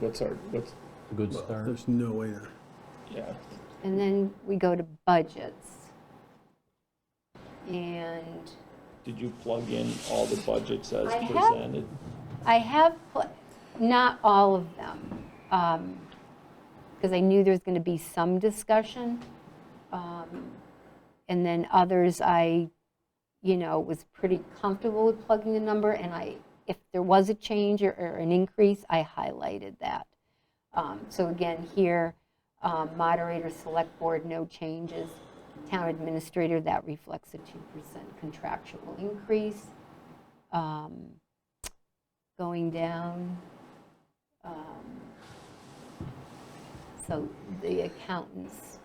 what's our, what's, Good Well, start. There's no way to, yeah. And then we go to budgets. And Did you plug in all the budgets as I have- presented? I have, pl- not all of them, because I knew there was going to be some discussion. Um, And then others, I, you know, was pretty comfortable with plugging the number, and I, if there was a change or- or an increase, I highlighted that. Um, So again, here, um, moderator, select board, no changes. Town administrator, that reflects a 2% contractual increase. Um, going down. um, So the accountant's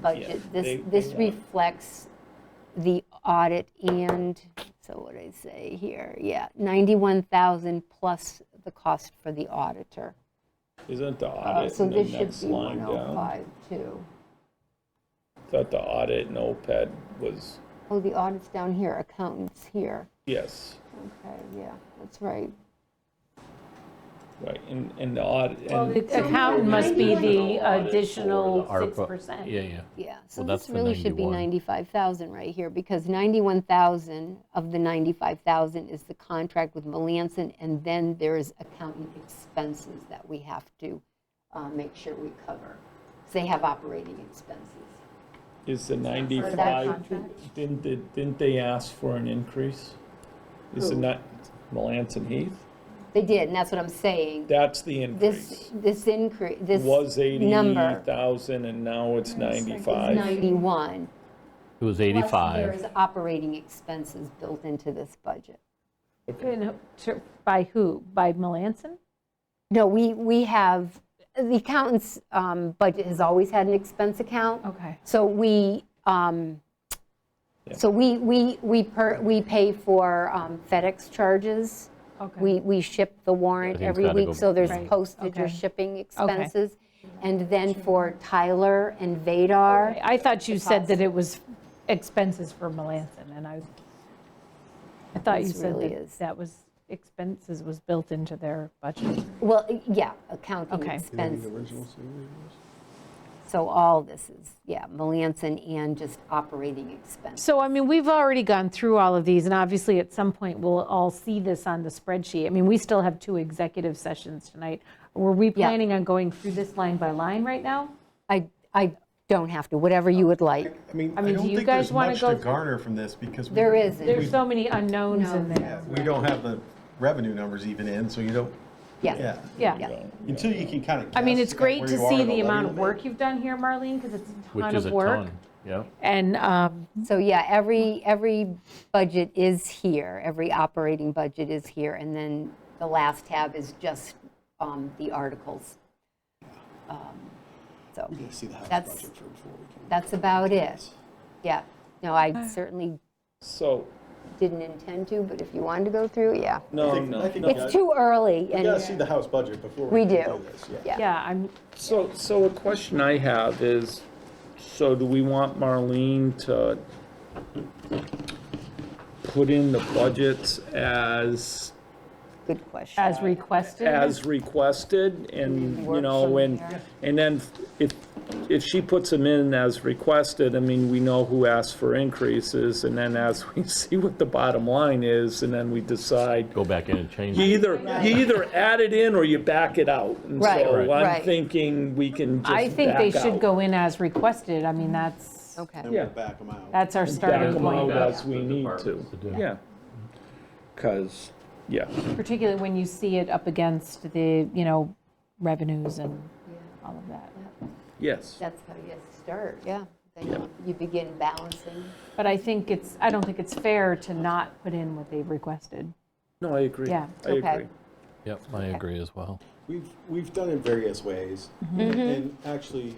budget, they- this, they this have- reflects the audit and, so what did I say here? Yeah, 91,000 plus the cost for the auditor. Isn't the Uh, audit So in the this should next be line down? 105 too. Thought the audit and OPEB was, Oh, the audit's down here, accountant's here. yes, Okay, yeah, that's right. right, and, and the audit, Well, and, the accountant must be the Audit for the additional ARPA. 6%. Yeah, yeah. Yeah, so Well, this that's the really should be 91. 95,000 right here, because 91,000 of the 95,000 is the contract with Melanson, and then there's accountant expenses that we have to uh, make sure we cover, 'cause they have operating expenses. is the that ninety-five, contract. didn't, they- didn't they ask for an increase? Is it Who? not Melanson Heath? They did, and that's what I'm saying. That's the increase. This, this increase, this Was eighty number thousand and now it's is ninety-five. 91. It was Plus, there 85. is operating expenses built into this budget. And who- to- By who? By Melanson? No, we, we have, the accountant's um, budget has always had an expense account. Okay. So we, um, so we, we, we per, we pay for um, FedEx charges. Okay. We, we ship the warrant Everything's every gotta week, go- so there's Right, postage or okay. shipping expenses. And then for Tyler and Vadar, I thought you said that it was expenses for Melanson, and I, I thought you This said really that is. that was, expenses was built into their budget. well, yeah, accounting Okay. you know, the expenses. original signature was? So all this is, yeah, Melanson and just operating expenses. So, I mean, we've already gone through all of these, and obviously, at some point, we'll all see this on the spreadsheet. I mean, we still have two executive sessions tonight. Were we Yeah. planning on going through this line by line right now? I, I don't have to, whatever you would like. I mean, I I mean, do don't you think guys there's wanna much go to through- garner from this because. we- There isn't. There's so many unknowns in No. there. We don't have the revenue numbers even in, so you don't, Yeah, yeah. Yeah. Until you can kind of. I mean, it's great to see the amount of work you've done here, Marlene, because it's a Which ton is of a work. ton. Yeah. And, um, so yeah, every, every budget is here, every operating budget is here, and then the last tab is just um, the articles. Um, So, See the house That's- budget for before we can. that's about it. Yeah, no, I certainly So, didn't intend to, but if you wanted to go through, yeah. no, I think- no, I think no. we got- It's too early, You gotta see and the house budget before. we can do, this, yeah. yeah, I'm, So, so a question I have is, so do we want Marlene to put in the budgets as, good question. as requested. as requested? And, you know, and, and then if, if she puts them in as requested, I mean, we know who asked for increases. And then as we see what the bottom line is, and then we decide, Go back in and change you it. either, you either add it in or you back it out. And Right, so I'm right. thinking we can just I think they back should out. go in as requested. I mean, that's, Okay. Then we'll back them out. that's our back starting them point, out Yeah. as we The need to. departments to do. Yeah. Because, yeah, particularly when you see it up against the, you know, revenues and all of that. yes. That's how you start, yeah. Then Yeah. you begin balancing. But I think it's, I don't think it's fair to not put in what they've requested. No, I agree. Yeah, I okay. agree. Yep, I agree as well. We've, we've done it various ways. Mm-hmm. And actually,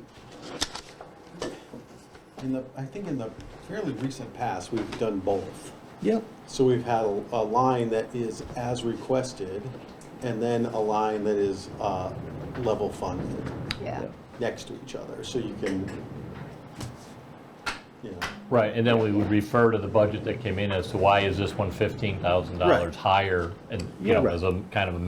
in the, I think in the fairly recent past, we've done both. Yep. So we've had a, a line that is as requested and then a line that is, uh, level funded Yeah. next to each other. So you can, you know, Right, and then we would refer to the budget that came in as to why is this one $15,000 higher? And, you know, Right. as a kind of a